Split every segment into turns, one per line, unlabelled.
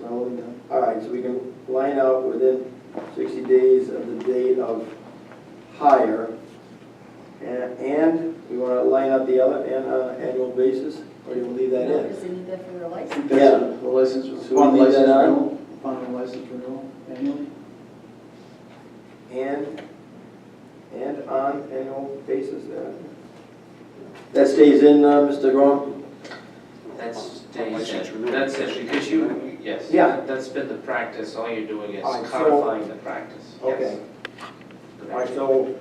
relevant now?
All right, so we can line out within 60 days of the date of hire. And, and we want to line up the other, and, uh, annual basis, or do you leave that in?
Because they need that for their license.
Yeah.
That's The license,
So we leave that
license
out?
renewal, upon the license renewal annually?
And, and on annual basis, uh, that stays in, uh, Mr. Grom?
That's,
License renewal.
that's it, because you, yes.
Yeah.
That's been the practice, all you're doing is
All right, so-
codifying the practice. Yes.
Okay. All right, so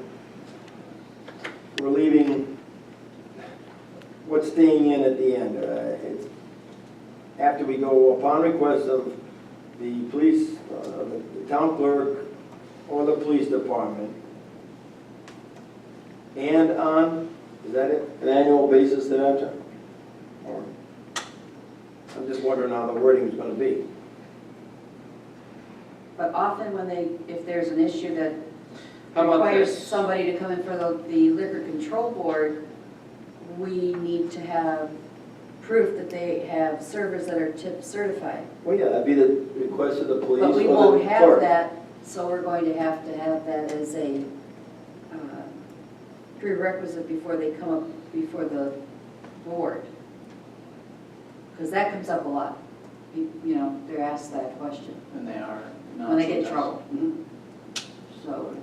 we're leaving, what's staying in at the end? uh, It's After we go upon request of the police, uh, the the town clerk, or the police department, and on, is that it, an annual basis thereafter? Or- I'm just wondering how the wording is gonna be.
But often when they, if there's an issue that
How about
requires
this?
somebody to come in for the the liquor control board, we need to have proof that they have servers that are tip certified.
Well, yeah, that'd be the request of the police or the
But we
clerk.
won't have that, so we're going to have to have that as a uh, prerequisite before they come up before the board. Because that comes up a lot. You you know, they're asked that question.
And they are not.
when they get in
sometimes.
trouble. So.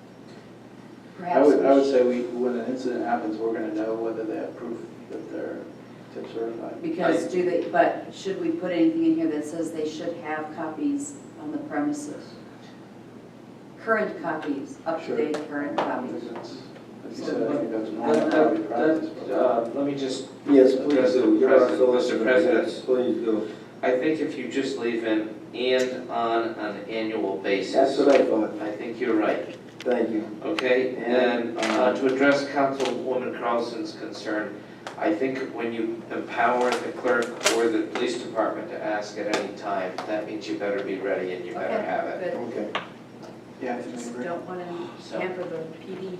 I
Perhaps,
would, I would
we
say we, when an incident happens, we're gonna know whether they have proof that they're tip certified.
should- because do they, but should we put anything in here that says they should have copies on the premises? Current copies,
Sure.
up-to-date current
I think
copies.
that's, like you said, I think that's normal,
That-
probably
that-
practice.
that,
but-
uh, Let me just,
Yes, please do. You're our
President, Mr.
solicitor.
President.
Yes, Please do.
I think if you just leave in and on an annual basis.
That's what I thought.
I think you're right,
Thank you.
okay?
And,
And
uh,
uh, to address Councilwoman Carlson's concern, I think when you empower the clerk or the police department to ask at any time, that means you better be ready and you better
Okay,
have it.
But
Okay.
uh, Yeah, I
just
think we agree.
don't want to
So-
hamper the PD.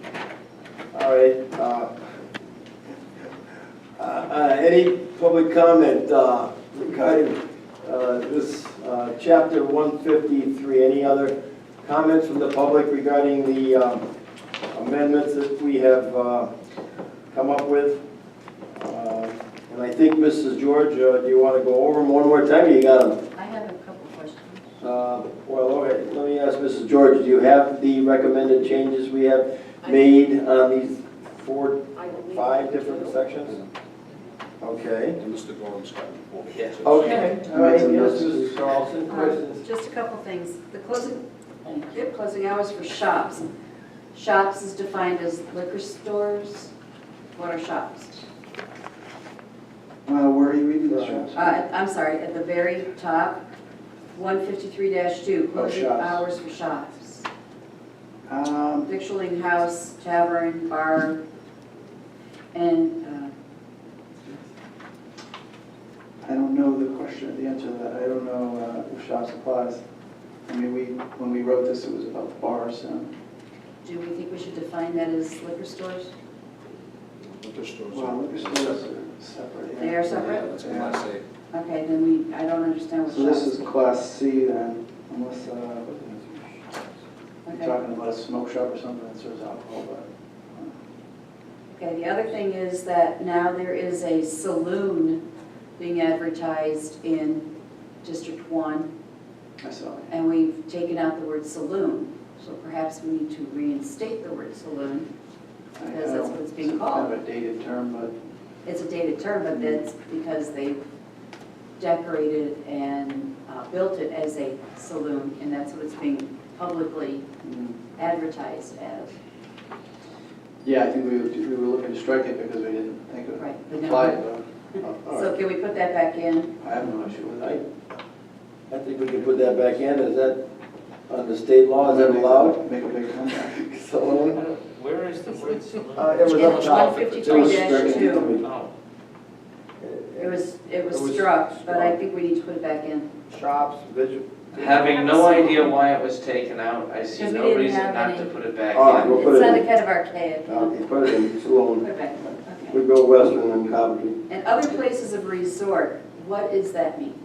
All right. uh, uh, uh, Any public comment uh, regarding uh, this uh, chapter 153? Any other comments from the public regarding the um, amendments that we have uh, come up with? Uh, And I think, Mrs. George, uh, do you want to go over them one more time? You got them?
I have a couple questions.
Uh, Well, all right, let me ask Mrs. George, do you have the recommended changes we have made on these four, five different sections? Okay.
And Mr. Gorham's got it. Well,
Yeah.
Okay, all right, yes,
Some notes.
Mrs. Carlson,
Um,
questions?
Just a couple things. The closing, thank you, closing hours for shops. Shops is defined as liquor stores. What are shops?
Uh, where are you reading this from?
Uh, I'm sorry, at the very top, 153-2, closing
shops.
hours for shops.
Um,
Victualling house, tavern, bar, and, uh,
I don't know the question, the answer to that, I don't know uh, if shops applies. I mean, we, when we wrote this, it was about bars, and,
do we think we should define that as liquor stores?
liquor stores are-
well, liquor stores are separate. yeah.
They are
Yeah,
separate?
that's what I say.
Okay, then we, I don't understand what
So this
shops.
is class C then, unless, uh, you're
Okay.
talking about a smoke shop or something that serves alcohol, but. uh,
Okay, the other thing is that now there is a saloon being advertised in District One,
uh, I saw it.
and we've taken out the word saloon. So perhaps we need to reinstate the word
I-
saloon.
I
Because that's
don't-
what it's being
it's
called.
Kind of a dated term, but
It's a dated term, but that's because they decorated and uh, built it as a saloon, and that's what it's being publicly
mm,
advertised as.
yeah, I think we, would- we were looking to strike it because we didn't think it
Right, but now-
applied. but oh,
All
So
right,
can we put that back in?
I have no issue with it.
I think we can put that back in, is that under state law, is that allowed?
Make a big comeback.
Saloon?
Where is the word saloon?
Uh, It was
In
up top. It was stricken.
153-2.
Oh,
It was, it was
It was
struck, but I think we need to put it back in.
Shops, visual.
Having no idea why it was taken out, I see
Because we
no
didn't
reason
have
not to
any.
put it back
All right,
in.
we'll put
It's
it
not a
in.
kind of archaic.
Uh, you Put it in, saloon.
Put it back, okay.
We go western and Coventry.
And other places of resort, what does that mean?